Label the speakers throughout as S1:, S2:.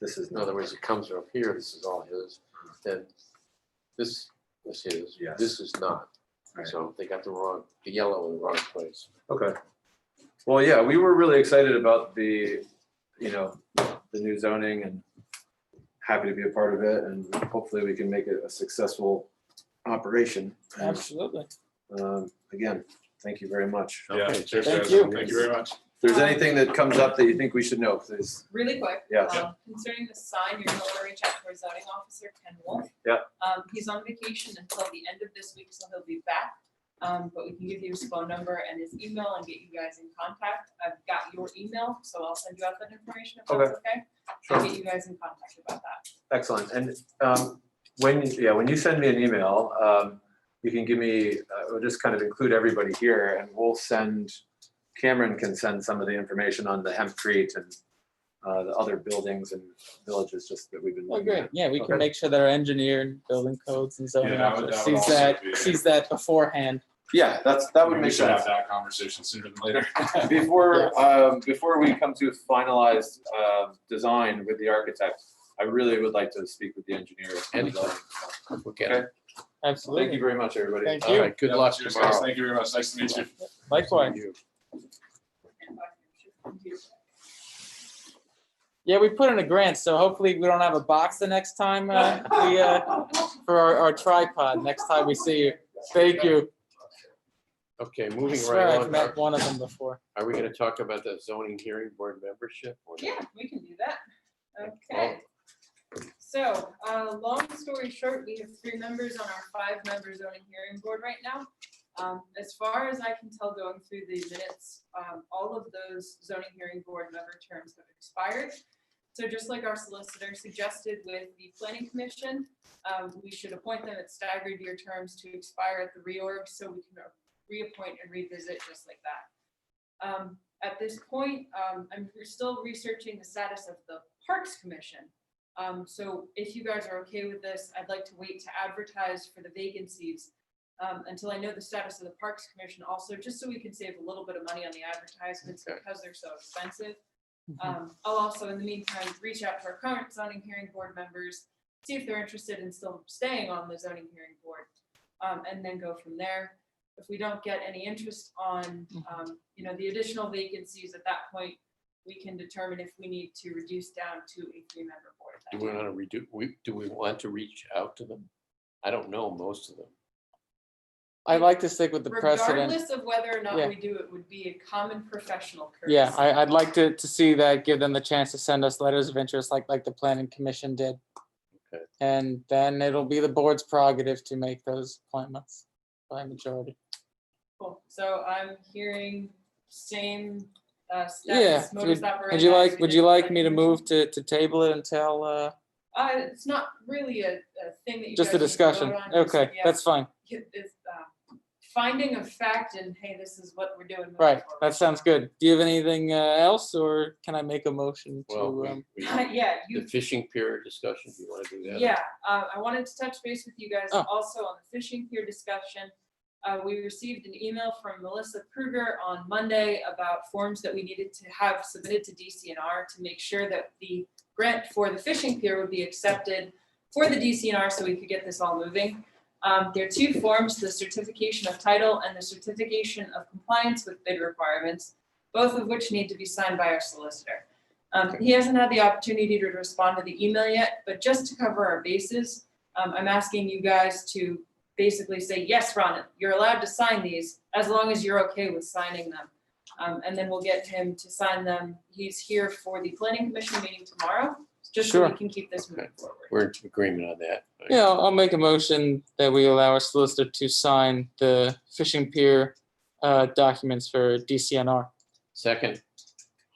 S1: This is
S2: In
S1: not,
S2: other words, it comes up here, this is all his, then this is his,
S1: Yes.
S2: this is not.
S1: Right.
S2: So they got the wrong, the yellow in the wrong place.
S1: okay. Well, yeah, we were really excited about the, you know, the new zoning and happy to be a part of it and hopefully we can make it a successful operation.
S3: Absolutely.
S1: Um, Again, thank you very much.
S4: Yeah,
S2: Okay,
S4: cheers,
S3: thank
S4: guys.
S3: you.
S4: Thank you very much.
S1: If there's anything that comes up that you think we should know, please.
S5: really quick.
S1: Yeah.
S5: um, Concerning the sign, you're gonna wanna reach out to our zoning officer, Ken Wolf.
S1: Yeah.
S5: Um, he's on vacation until the end of this week, so he'll be back. Um, but we can give you his phone number and his email and get you guys in contact. I've got your email, so I'll send you out that information if that's okay.
S1: Sure.
S5: I'll get you guys in contact about that.
S1: Excellent. And um, when, yeah, when you send me an email, um, you can give me, uh, we'll just kind of include everybody here and we'll send, Cameron can send some of the information on the hempcrete and uh, the other buildings and villages just that we've been.
S3: Well,
S1: looking at.
S3: great. Yeah, we
S1: Okay.
S3: can make sure that our engineer and building codes and zoning
S4: Yeah, that would-
S3: officer
S4: that
S3: sees
S4: would also
S3: that,
S4: be-
S3: sees that beforehand.
S1: Yeah, that's, that would
S4: Maybe
S1: make
S4: We should
S1: sense.
S4: have that conversation sooner than later.
S1: Before, um, before we come to finalized uh, design with the architect, I really would like to speak with the engineer.
S2: Anytime. We'll get it.
S1: Thank you
S3: Absolutely.
S1: very much, everybody.
S3: Thank
S2: All
S3: you.
S2: right, good
S4: Yeah,
S2: luck
S4: cheers, guys.
S2: tomorrow.
S4: Thank you very much. Nice to meet you.
S3: Likewise.
S2: You.
S5: And I should come to you.
S3: Yeah, we put in a grant, so hopefully we don't have a box the next time, uh, we, uh, for our, our tripod, next time we see you. Thank you.
S2: Okay,
S3: I
S2: moving
S3: swear
S2: right
S3: I've
S2: on.
S3: met
S2: Are
S3: one of them before.
S2: are we gonna talk about the zoning hearing board membership? or not?
S5: Yeah, we can do that. Okay. So, uh, long story short, we have three members on our five-member zoning hearing board right now. Um, as far as I can tell going through the minutes, um, all of those zoning hearing board member terms have expired. So just like our solicitor suggested with the planning commission, um, we should appoint them at staggered year terms to expire at the reorg, so we can reappoint and revisit just like that. Um, at this point, um, I'm still researching the status of the Parks Commission. Um, so if you guys are okay with this, I'd like to wait to advertise for the vacancies um, until I know the status of the Parks Commission also, just so we can save a little bit of money on the advertisements
S2: Okay.
S5: because they're so expensive.
S3: Mm-hmm.
S5: Um, I'll also, in the meantime, reach out to our current zoning hearing board members, see if they're interested in still staying on the zoning hearing board, um, and then go from there if we don't get any interest on,
S3: Mm-hmm.
S5: um, you know, the additional vacancies at that point, we can determine if we need to reduce down to a three-member board. at
S2: Do
S5: that
S2: we
S5: time.
S2: wanna redo, we, do we want to reach out to them? I don't know most of them.
S3: I like to stick with the precedent.
S5: Regardless of whether or
S3: Yeah.
S5: not we do, it would be a common professional courtesy.
S3: Yeah, I, I'd like to, to see that, give them the chance to send us letters of interest like, like the planning commission did.
S2: Okay.
S3: And then it'll be the board's prerogative to make those appointments by majority.
S5: Cool. So I'm hearing same, uh,
S3: Yeah,
S5: status, modus
S3: Would you
S5: operandi as
S3: like,
S5: we
S3: would
S5: did
S3: you
S5: with
S3: like
S5: that
S3: me to
S5: commission.
S3: move to, to table it until, uh,
S5: Uh, it's not really a, a thing that you.
S3: just a
S5: guys need to vote
S3: discussion?
S5: on, just-
S3: Okay,
S5: yeah,
S3: that's fine.
S5: it- it's, uh, Finding of fact and hey, this is what we're doing. moving
S3: Right,
S5: forward.
S3: that sounds good. Do you have anything uh, else or can I make a motion
S2: Well,
S3: to,
S2: we-
S3: um,
S2: we-
S5: Yeah, you
S2: the fishing pier discussion, do you wanna do that?
S5: Yeah, uh, I wanted to touch base with you guys
S3: Oh.
S5: also on the fishing pier discussion. Uh, we received an email from Melissa Kruger on Monday about forms that we needed to have submitted to DCNR to make sure that the grant for the fishing pier would be accepted for the DCNR so we could get this all moving. Um, there are two forms, the certification of title and the certification of compliance with bid requirements, both of which need to be signed by our solicitor. Um, he hasn't had the opportunity to respond to the email yet, but just to cover our bases, um, I'm asking you guys to basically say, yes, Ron, you're allowed to sign these as long as you're okay with signing them. Um, and then we'll get him to sign them. He's here for the planning commission meeting tomorrow, just so we
S3: Sure.
S5: can keep this moving forward.
S2: We're in agreement on that.
S3: yeah, I'll I'll make a motion that we allow our solicitor to sign the fishing pier uh, documents for DCNR.
S2: Second,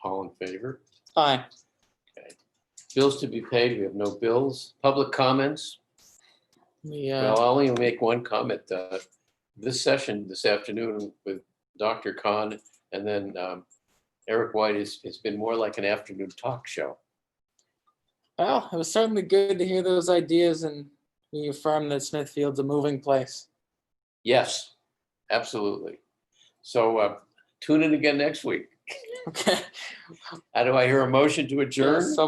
S2: all in favor?
S3: Aye.
S2: Bills to be paid, we have no bills. Public comments?
S3: Yeah,
S2: Well, I'll only make one comment. uh, This session this afternoon with Dr. Khan and then um, Eric White is, it's been more like an afternoon talk show.
S3: well, it was certainly good to hear those ideas and we affirm that Smithfield's a moving place.
S2: Yes, absolutely. So uh, tune in again next week.
S3: Okay.
S2: How do I hear a motion to adjourn?
S3: So